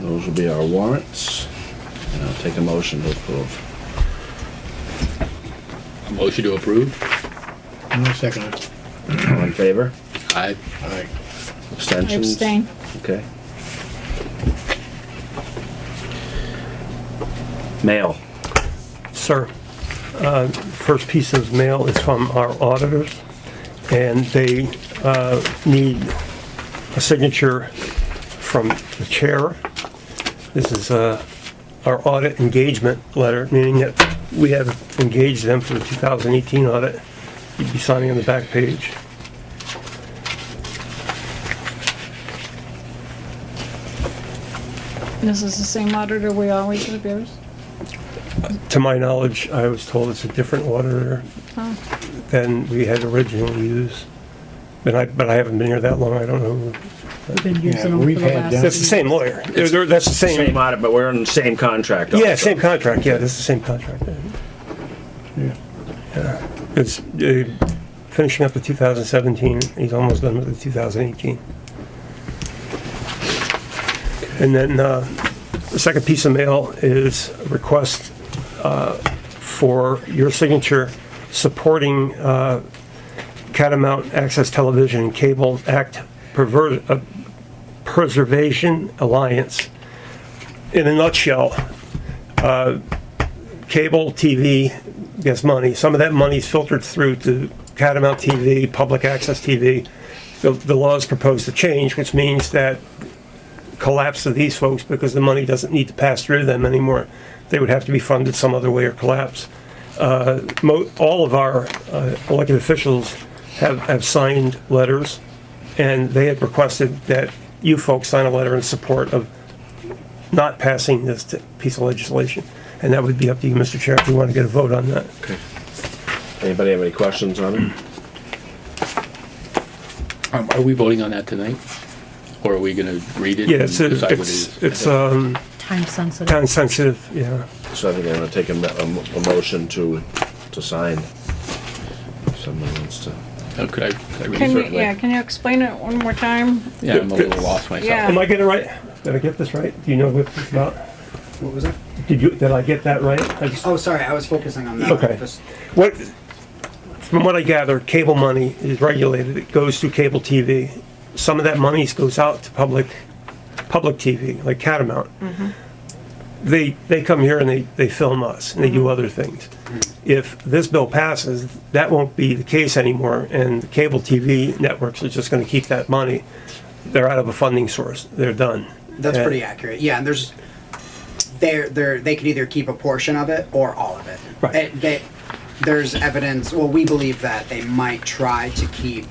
Those will be our warrants. And I'll take a motion to approve. Motion to approve? No second it. All in favor? Aye. Aye. I Abstentions? abstain. Okay. Mail. Sir, uh, first piece of mail is from our auditors, and they uh, need a signature from the chair. This is uh, our audit engagement letter, meaning that we have engaged them for the 2018 audit. You'd be signing on the back page. This is the same auditor we always abuse. To my knowledge, I was told it's a different auditor Oh. than we had originally used. But I, but I haven't been here that long, I don't know. We've been Yeah, using them for we've the had last. them. That's the same lawyer. They're- they're- That's the Same same. audit, but we're in the same contract. Yeah, also. same contract. Yeah, that's the same contract. Yeah. Yeah. It's uh, finishing up the 2017. He's almost done with the 2018. And then uh, the second piece of mail is a request uh, for your signature supporting uh, Catamount Access Television and Cable Act Perver- uh, Preservation Alliance. In a nutshell, cable TV gets money. Some of that money's filtered through to Catamount TV, public access TV. The, the law is proposed to change, which means that collapse of these folks because the money doesn't need to pass through them anymore. They would have to be funded some other way or collapse. Uh, mo- all of our uh, elected officials have, have signed letters, and they had requested that you folks sign a letter in support of not passing this t- piece of legislation. And that would be up to you, Mr. Chair, if you want to get a vote on that. Anybody have any questions on it? Um, Are are we voting on that tonight? Or are we gonna read it? Yeah, and it's, a- decide what it it's, is? it's um, Time sensitive. time sensitive, yeah. So I think I'm gonna take a, mo- a mo- a motion to, to sign. If someone wants to. Oh, Could I? could I read it? Can you, Certainly. yeah, can you explain it one more time? Yeah, I'm a little lost Yeah. myself. Am I getting it right? Did I get this right? Do you know what it's about? What was that? Did you, did I get that right? I just- Oh, sorry, I was focusing on that. Okay. Just- What, from what I gather, cable money is regulated. It goes through cable TV. Some of that money goes out to public, public TV, like Catamount. They, they come here and they, they film us and they do other things. If this bill passes, that won't be the case anymore and the cable TV networks are just gonna keep that money. They're out of a funding source. They're done. That's Yeah. pretty accurate. Yeah, and there's, they're, they're, they could either keep a portion of it or all of it. Right. They- They, there's evidence, well, we believe that they might try to keep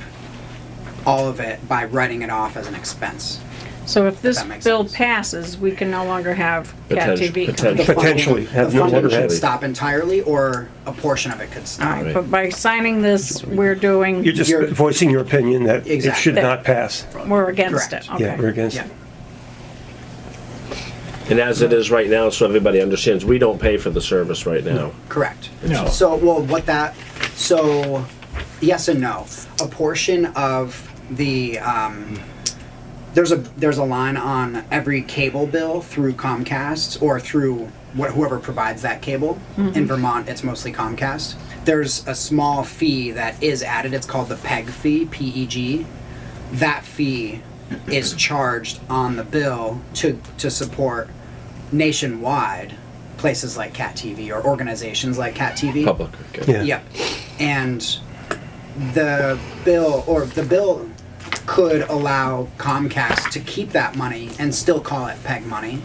all of it by writing it off as an expense. So if this That makes bill sense. passes, we can no longer have cat Potenti- TV. potential. The funding- Potentially, have no The funding should overhead. stop entirely, or a portion of it could All stop. right, But by signing this, we're doing, You're just You're- voicing your opinion that it Exactly. should not pass. we're against Correct. it, Yeah, we're okay. against Yeah, it. And as it is right now, so everybody understands, we don't pay for the service right now. correct. No. So, well, what that, so, yes and no. A portion of the, um, there's a, there's a line on every cable bill through Comcast or through what, whoever provides that cable. In Vermont, it's mostly Comcast. There's a small fee that is added, it's called the E PEG fee, P-E-G. That fee is charged on the bill to, to support nationwide places like Cat TV or organizations like Cat TV. Public, okay. Yeah. Yep. And the bill, or the bill could allow Comcast to keep that money and still call it PEG money.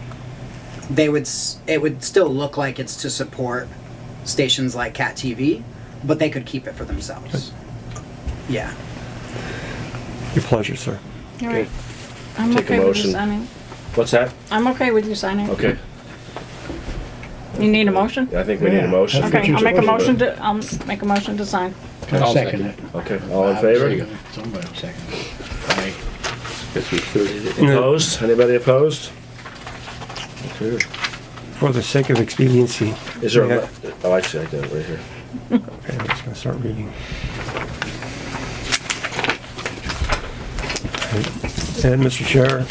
They would, s- it would still look like it's to support stations like Cat TV, but they could keep it for themselves. Yeah. Your pleasure, sir. All right. I'm Take a okay with you motion. signing. What's that? I'm okay with you signing. Okay, You need a motion? I think we need a Yeah. motion. That's what Okay, you I'll make a supposed motion to, I'll make a motion to sign. I I'll second second it. Okay, all in Bob favor? seconded it. Somebody seconded it. Aye. Guess we third it. Opposed? Anybody opposed? Okay. For the sake of expediency. Is there, a Yeah. le- oh, actually, I got it right here. Okay, I'm just gonna start reading. And Mr. Chair,